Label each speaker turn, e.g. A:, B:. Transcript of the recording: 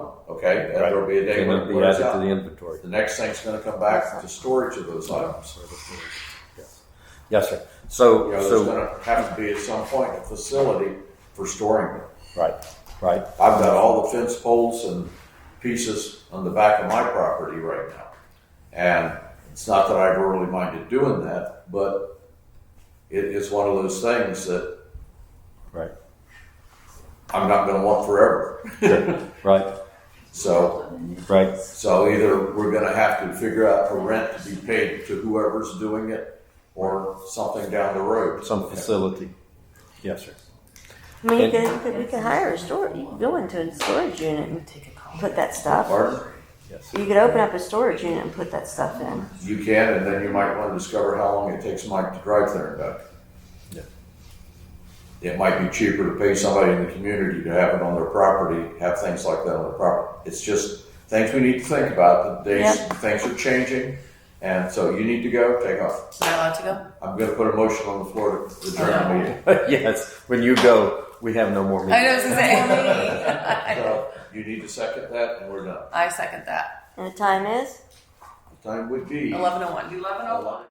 A: okay? And there'll be a day
B: Can
A: when
B: it
A: it
B: be
A: wears
B: added to the
A: out.
B: inventory?
A: The next thing's gonna come back to storage of those items.
B: Yes. Yes, sir. So,
A: You know, there's
B: so,
A: gonna have to be at some point a facility for storing them.
B: right, right.
A: I've got all the fence poles and pieces on the back of my property right now. And it's not that I've really minded doing that, but it is one of those things that
B: Right.
A: I'm not gonna want forever.
B: Right,
A: So,
B: right.
A: so either we're gonna have to figure out a rent to be paid to whoever's doing it or something down the road.
B: Some facility. Yes, sir.
C: I mean, you
B: And-
C: could, you could, we could hire a storage. You could go into a storage unit and put that stuff.
A: Pardon?
B: Yes.
C: You could open up a storage unit and put that stuff in.
A: You can, and then you might want to discover how long it takes Mike to drive there and back.
B: Yeah.
A: It might be cheaper to pay somebody in the community to have it on their property, have things like that on their property. It's just things we need to think about. The days, things are changing, and so you need to go, take off.
D: Am I allowed to go?
A: I'm gonna put a motion on the floor to adjourn the meeting.
B: Yes, when you go, we have no more
D: I know, I
B: meetings.
D: was gonna say.
A: So you need to second that, and we're done.
D: I second that.
C: And the time is?
A: The time would be.
D: Eleven oh one. Eleven
A: oh one.